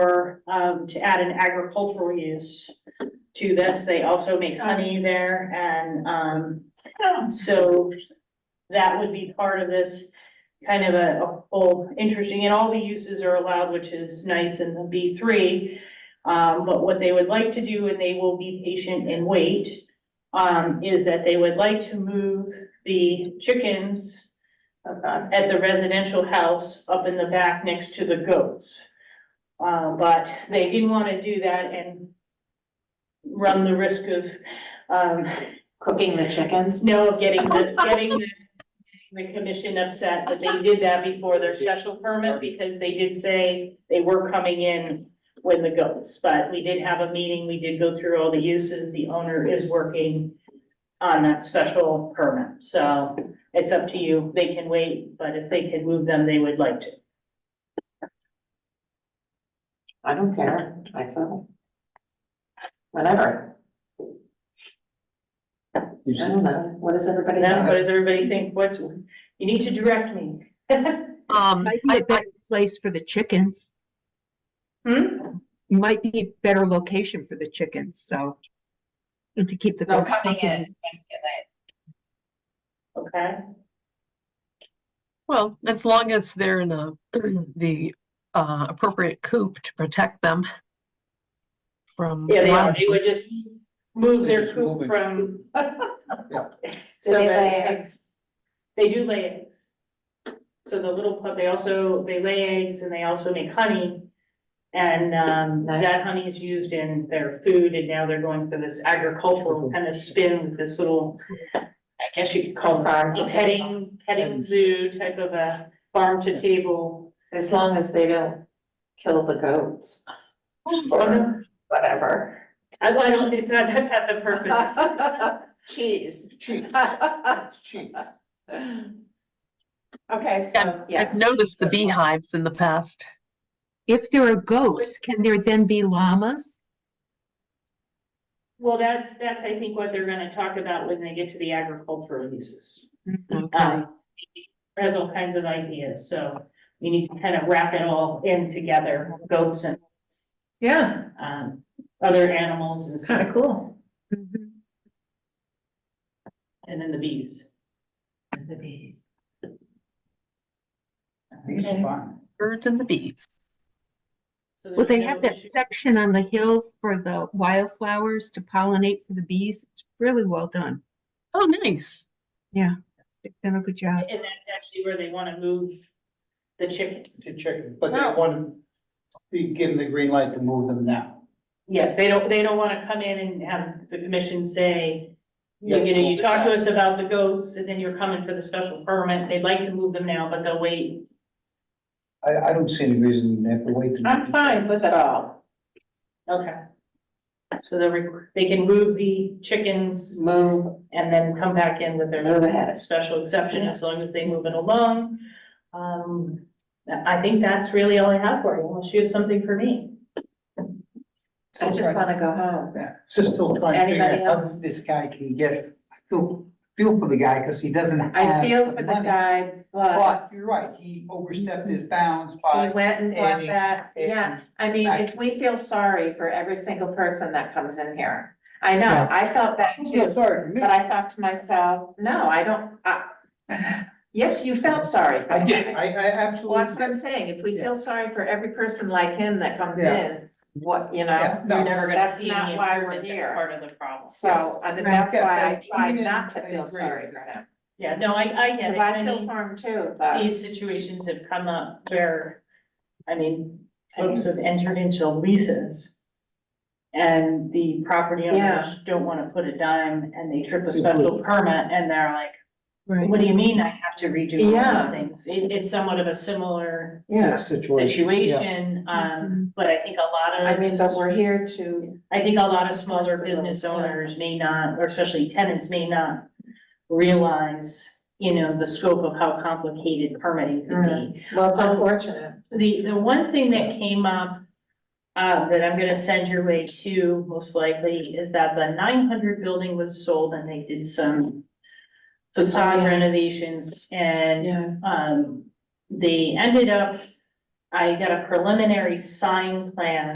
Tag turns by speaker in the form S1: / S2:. S1: um, to add an agricultural use to this. They also make honey there and, um, so that would be part of this kind of a, a whole interesting, and all the uses are allowed, which is nice in the B three. Um, but what they would like to do, and they will be patient and wait, um, is that they would like to move the chickens uh,
S2: Okay.
S1: at the residential house up in the back next to the goats. Uh, but they didn't want to do that and run the risk of, um,
S2: Cooking the chickens?
S1: no, of getting the, getting the, the commission upset, but they did that before their special permit because they did say they were coming in when the goats, but we did have a meeting, we did go through all the uses, the owner is working on that special permit, so it's up to you, they can wait, but if they can move them, they would like to.
S2: I don't care, myself. Whatever, I don't know, what does everybody
S1: Now,
S2: know?
S1: what does everybody think, what's, you need to direct me?
S3: Um,
S4: Might be
S3: I,
S4: a better place for the chickens.
S1: Hmm?
S4: Might be a better location for the chickens, so. And to keep the
S2: No,
S4: goats
S2: cutting
S4: company.
S2: it.
S1: Okay,
S3: well, as long as they're in the, the, uh, appropriate coop to protect them from.
S1: yeah, they, are.
S3: wild-
S1: they would just move their coop
S5: Moving.
S1: from.
S2: Do
S1: So
S2: they
S1: that-
S2: lay eggs?
S1: They do lay eggs. So the little pup, they also, they lay eggs and they also make honey. And, um,
S2: Nice.
S1: that honey is used in their food and now they're going for this agricultural kind of spin with this little, I guess you could call
S2: Farm
S1: it
S2: to
S1: a petting, petting zoo type of a farm to table.
S2: As long as they don't kill the goats,
S1: I,
S2: whatever.
S1: I don't, it's not, that's not the purpose.
S2: Cheese.
S5: Cheap, cheap.
S2: Okay,
S3: Yeah,
S2: so,
S3: I've
S2: yes.
S3: noticed the beehives in the past.
S4: If there are goats, can there then be llamas?
S1: Well, that's, that's, I think, what they're gonna talk about when they get to the agricultural uses.
S3: Okay,
S1: Um, there's all kinds of ideas, so we need to kind of wrap it all in together, goats and. Yeah. Um, other animals and. Kind of cool. Mm-hmm. And then the bees. Uh,
S2: The bees.
S1: Okay.
S3: birds and the bees.
S1: So
S4: Well,
S1: there's
S4: they
S1: no
S4: have that
S1: issue.
S4: section on the hill for the wildflowers to pollinate for the bees. It's really well done.
S3: Oh, nice.
S4: They've done a good job.
S1: And that's actually where they wanna move the chicken.
S5: To chicken, but they want to be given the green light to move them now.
S1: Yes, they don't, they don't wanna come in and have the commission say, you
S5: Yeah.
S1: know, you talked to us about the goats, and then you're coming for the special permit, they'd like to move them now, but they'll wait.
S5: I, I don't see any reason they have to wait. to-
S1: I'm fine with
S2: With it all,
S1: Okay. So they're, re- they can move the chickens
S2: move,
S1: and then come back in with
S2: move
S1: their
S2: ahead.
S1: special exception as long as they move it along. Um, I think that's really all I have for you, unless you have something for me.
S2: I just wanna go home.
S5: Yeah, Just still trying to figure
S2: Anybody
S5: out
S2: else?
S5: how this guy can get, I feel, feel for the guy because he doesn't have.
S2: I feel for the
S5: money.
S2: guy, but
S5: But you're right, he overstepped his bounds
S2: he
S5: by.
S2: went and bought
S5: Annie,
S2: that, yeah. I mean, if we feel sorry for every single person that comes in here, I know,
S5: Yeah.
S2: I felt bad
S5: I feel
S2: too,
S5: sorry for me.
S2: but I thought to myself, no, I don't, I. Yes, you felt sorry.
S5: I did, I, I
S2: Well, that's what
S5: absolutely.
S2: I'm saying, if we feel sorry for every person like him that comes
S5: Yeah.
S2: in, what, you know,
S5: Yeah,
S1: You're
S5: no,
S1: never gonna
S2: That's
S1: see
S2: not
S1: any
S2: why we're
S1: improvement,
S2: here.
S1: that's part of the problem.
S2: so, and
S4: Right.
S2: that's
S5: Yes,
S2: why
S5: I-
S2: I tried
S5: even
S2: not to
S5: I
S2: feel
S5: agree
S2: sorry
S5: with
S2: for
S5: that.
S2: him,
S1: Yeah, no, I, I get
S2: cause
S1: it.
S2: I
S1: I
S2: feel
S1: mean,
S2: for him too, but.
S1: these situations have come up where, I mean, folks have entered into leases. And the property owners
S2: Yeah.
S1: don't wanna put a dime and they trip a special permit and they're like,
S4: Right.
S1: what do you mean I have to redo all these
S2: Yeah.
S1: things? It, it's somewhat of a similar
S2: Yeah.
S1: situation, um, but I think a lot
S2: Mm-hmm. I
S1: of.
S2: mean, but we're here to,
S1: I think a lot of smaller business owners may not, or especially tenants may not realize, you know, the scope of how complicated permitting could be.
S2: well, it's
S1: Um,
S2: unfortunate.
S1: The, the one thing that came up, uh, that I'm gonna send your way to most likely is that the nine hundred building was sold and they did some facade
S2: Oh, yeah.
S1: renovations and,
S2: Yeah.
S1: um, they ended up, I got a preliminary sign plan